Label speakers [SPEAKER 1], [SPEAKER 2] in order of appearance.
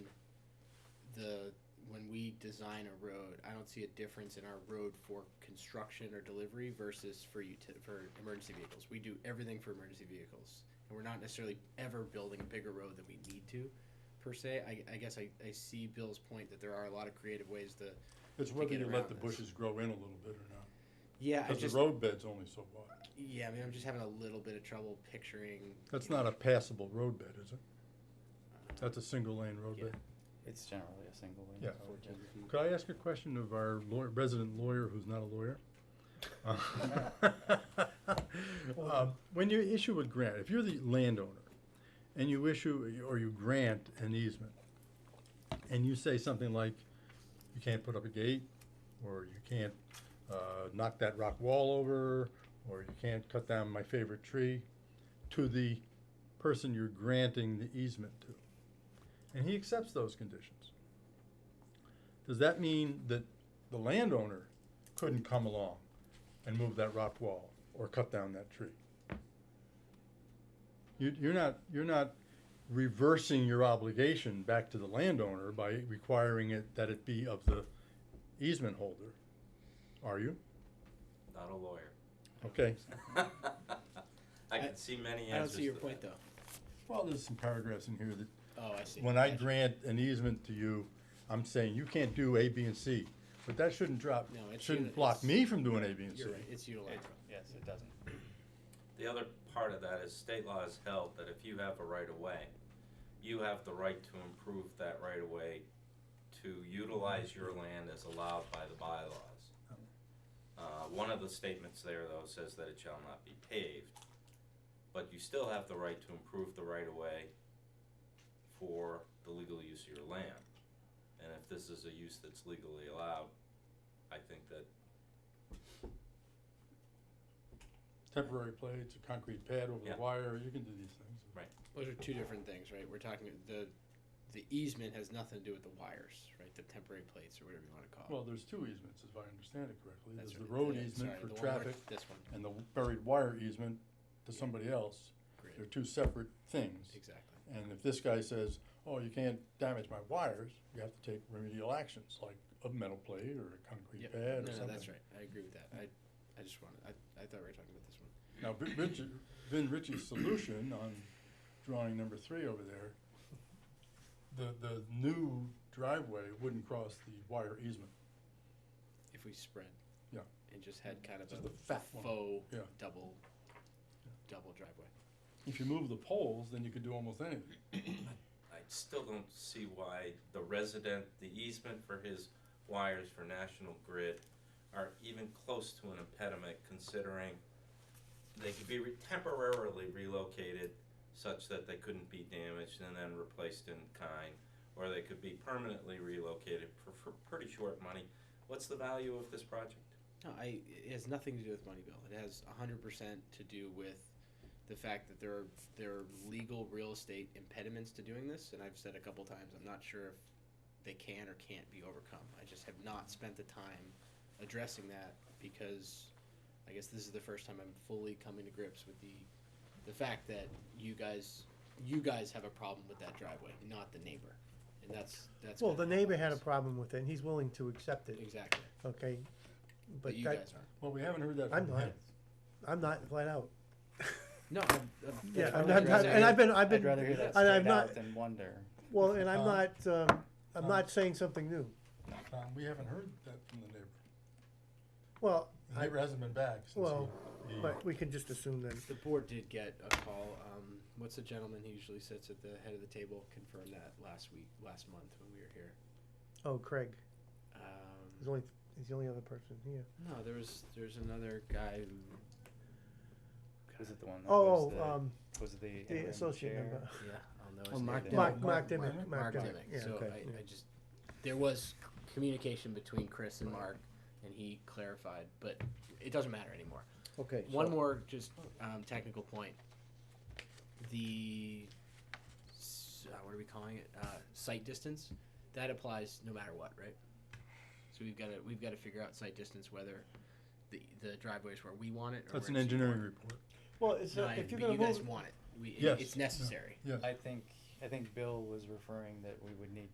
[SPEAKER 1] design a road, I don't see a difference in our road for construction or delivery versus for uti- for emergency vehicles. We do everything for emergency vehicles, and we're not necessarily ever building a bigger road than we need to, per se. I, I guess I, I see Bill's point that there are a lot of creative ways to.
[SPEAKER 2] It's
[SPEAKER 1] to
[SPEAKER 2] whether
[SPEAKER 1] get
[SPEAKER 2] you
[SPEAKER 1] around
[SPEAKER 2] let the
[SPEAKER 1] this.
[SPEAKER 2] bushes grow in a little bit or not,
[SPEAKER 1] Yeah, I
[SPEAKER 2] because
[SPEAKER 1] just
[SPEAKER 2] the roadbed's only so wide.
[SPEAKER 1] yeah. I mean, I'm just having a little bit of trouble picturing.
[SPEAKER 2] That's
[SPEAKER 1] you know,
[SPEAKER 2] not a passable roadbed, is it?
[SPEAKER 1] uh,
[SPEAKER 2] That's a single lane roadbed.
[SPEAKER 3] It's generally a single lane.
[SPEAKER 2] Yeah.
[SPEAKER 3] Fourteen feet.
[SPEAKER 2] Could I ask a question of our lawyer, resident lawyer who's not a lawyer? Um, When you issue a grant, if you're the landowner and you issue, or you grant an easement, and you say something like, you can't put up a gate, or you can't, uh, knock that rock wall over, or you can't cut down my favorite tree, to the person you're granting the easement to. And he accepts those conditions. Does that mean that the landowner couldn't come along and move that rock wall or cut down that tree? You, you're not, you're not reversing your obligation back to the landowner by requiring it, that it be of the easement holder, are you?
[SPEAKER 4] Not a lawyer.
[SPEAKER 2] Okay.
[SPEAKER 4] I
[SPEAKER 1] I-
[SPEAKER 4] can see many answers.
[SPEAKER 1] I don't see your
[SPEAKER 4] to
[SPEAKER 1] point
[SPEAKER 4] that.
[SPEAKER 1] though.
[SPEAKER 2] Well, there's some paragraphs in here that
[SPEAKER 1] Oh, I see.
[SPEAKER 2] when I
[SPEAKER 1] Gotcha.
[SPEAKER 2] grant an easement to you, I'm saying you can't do A, B, and C. But that shouldn't drop,
[SPEAKER 1] No, it's
[SPEAKER 2] shouldn't
[SPEAKER 1] uni-
[SPEAKER 2] block
[SPEAKER 1] it's-
[SPEAKER 2] me from doing A, B, and C.
[SPEAKER 1] You're right. It's
[SPEAKER 3] It-
[SPEAKER 1] utilized.
[SPEAKER 3] Yes, it doesn't.
[SPEAKER 4] The other part of that is state law has held that if you have a right of way, you have the right to improve that right of way to utilize your land as allowed by the bylaws.
[SPEAKER 1] Oh.
[SPEAKER 4] Uh, one of the statements there though says that it shall not be paved, but you still have the right to improve the right of way for the legal use of your land. And if this is a use that's legally allowed, I think that
[SPEAKER 2] temporary plates, a concrete pad over
[SPEAKER 4] Yeah.
[SPEAKER 2] the wire, you can do these things.
[SPEAKER 1] Those are two different things, right? We're talking the the easement has nothing to do with the wires, right? The temporary plates or whatever you want to call it.
[SPEAKER 2] Well, there's two easements, if I understand it correctly.
[SPEAKER 1] That's
[SPEAKER 2] There's the
[SPEAKER 1] right.
[SPEAKER 2] road
[SPEAKER 1] Yeah,
[SPEAKER 2] easement
[SPEAKER 1] sorry,
[SPEAKER 2] for
[SPEAKER 1] the one where-
[SPEAKER 2] traffic
[SPEAKER 1] This one,
[SPEAKER 2] and the buried wire easement to somebody else.
[SPEAKER 1] Great.
[SPEAKER 2] They're two separate things.
[SPEAKER 1] exactly.
[SPEAKER 2] And if this guy says, oh, you can't damage my wires, you have to take remedial actions, like a metal plate or a concrete
[SPEAKER 1] Yep.
[SPEAKER 2] pad or
[SPEAKER 1] No, no,
[SPEAKER 2] something.
[SPEAKER 1] that's right. I agree with that. I, I just wanted, I, I thought we were talking about this one.
[SPEAKER 2] Now, Vin Ritchie, Vin Ritchie's solution on drawing number three over there, the, the new driveway wouldn't cross the wire easement.
[SPEAKER 1] If we spread.
[SPEAKER 2] Yeah.
[SPEAKER 1] And just had kind of
[SPEAKER 2] Just
[SPEAKER 1] a
[SPEAKER 2] the fat one.
[SPEAKER 1] faux
[SPEAKER 2] Yeah.
[SPEAKER 1] double, double driveway.
[SPEAKER 2] If you move the poles, then you could do almost anything.
[SPEAKER 4] I still don't see why the resident, the easement for his wires for National Grid are even close to an impediment considering they could be re- temporarily relocated such that they couldn't be damaged and then replaced in kind, or they could be permanently relocated for, for pretty short money. What's the value of this project?
[SPEAKER 1] No, I, it has nothing to do with money, Bill. It has hundred percent to do with the fact that there are, there are legal real estate impediments to doing this, and I've said a couple times, I'm not sure if they can or can't be overcome. I just have not spent the time addressing that because I guess this is the first time I'm fully coming to grips with the, the fact that you guys, you guys have a problem with that driveway, not the neighbor. And that's, that's.
[SPEAKER 5] Well, the
[SPEAKER 1] kinda
[SPEAKER 5] neighbor had a
[SPEAKER 1] outrageous.
[SPEAKER 5] problem with it, and he's willing to accept it,
[SPEAKER 1] Exactly,
[SPEAKER 5] okay?
[SPEAKER 1] but
[SPEAKER 5] But
[SPEAKER 1] you
[SPEAKER 5] that,
[SPEAKER 1] guys aren't.
[SPEAKER 2] Well, we haven't heard that
[SPEAKER 5] I'm
[SPEAKER 2] from
[SPEAKER 5] not.
[SPEAKER 2] him.
[SPEAKER 5] I'm not flat out.
[SPEAKER 1] No, I'm, I'm.
[SPEAKER 5] Yeah,
[SPEAKER 1] that's
[SPEAKER 5] I'm
[SPEAKER 1] what
[SPEAKER 5] not,
[SPEAKER 1] I'm
[SPEAKER 3] I'd
[SPEAKER 1] saying.
[SPEAKER 5] and I've been, I've
[SPEAKER 3] I'd
[SPEAKER 5] been,
[SPEAKER 3] rather hear
[SPEAKER 5] and
[SPEAKER 3] that
[SPEAKER 5] I'm
[SPEAKER 3] straight
[SPEAKER 5] not,
[SPEAKER 3] out than wonder.
[SPEAKER 5] well, and I'm
[SPEAKER 2] Um,
[SPEAKER 5] not, um, I'm
[SPEAKER 2] um,
[SPEAKER 5] not saying something new.
[SPEAKER 2] Tom, Um, we haven't heard that from the neighbor.
[SPEAKER 5] Well,
[SPEAKER 2] The neighbor hasn't been back since
[SPEAKER 5] Well,
[SPEAKER 2] he, he,
[SPEAKER 5] but we can just assume then.
[SPEAKER 1] The board did get a call. Um, what's the gentleman who usually sits at the head of the table confirmed that last week, last month when we were here.
[SPEAKER 5] Oh, Craig, he's
[SPEAKER 1] Um,
[SPEAKER 5] only, he's the only other person here.
[SPEAKER 1] no, there was there's another guy who.
[SPEAKER 3] Was it the one that was
[SPEAKER 5] Oh,
[SPEAKER 3] the,
[SPEAKER 5] um,
[SPEAKER 3] was the
[SPEAKER 5] the
[SPEAKER 3] interim
[SPEAKER 5] associate
[SPEAKER 3] chair?
[SPEAKER 5] member.
[SPEAKER 1] Yeah, I'll know his
[SPEAKER 3] Oh,
[SPEAKER 1] name.
[SPEAKER 3] Mark
[SPEAKER 1] now.
[SPEAKER 3] Dimmock.
[SPEAKER 5] Mark, Mark Demick, Mark
[SPEAKER 1] Mark
[SPEAKER 5] Demick,
[SPEAKER 1] Dimmock.
[SPEAKER 5] yeah,
[SPEAKER 1] so
[SPEAKER 5] okay.
[SPEAKER 1] I,
[SPEAKER 5] yeah.
[SPEAKER 1] I just there was c- communication between Chris and Mark, and he clarified, but it doesn't matter anymore.
[SPEAKER 6] Okay.
[SPEAKER 1] One
[SPEAKER 6] so-
[SPEAKER 1] more just um, technical point. The s- uh, what are we calling it? Uh, sight distance. That applies no matter what, right? So we've got to we've got to figure out sight distance whether the the driveway is where we want it. Or where
[SPEAKER 2] that's an
[SPEAKER 1] it's-
[SPEAKER 2] engineering report.
[SPEAKER 6] Well, it's,
[SPEAKER 5] uh,
[SPEAKER 1] No,
[SPEAKER 6] not-
[SPEAKER 1] I-
[SPEAKER 6] if you're
[SPEAKER 1] but
[SPEAKER 6] gonna
[SPEAKER 1] you guys
[SPEAKER 6] move,
[SPEAKER 1] want it. We, it-
[SPEAKER 2] Yes.
[SPEAKER 1] It's necessary.
[SPEAKER 2] Yes.
[SPEAKER 3] I think I think Bill was referring that we would need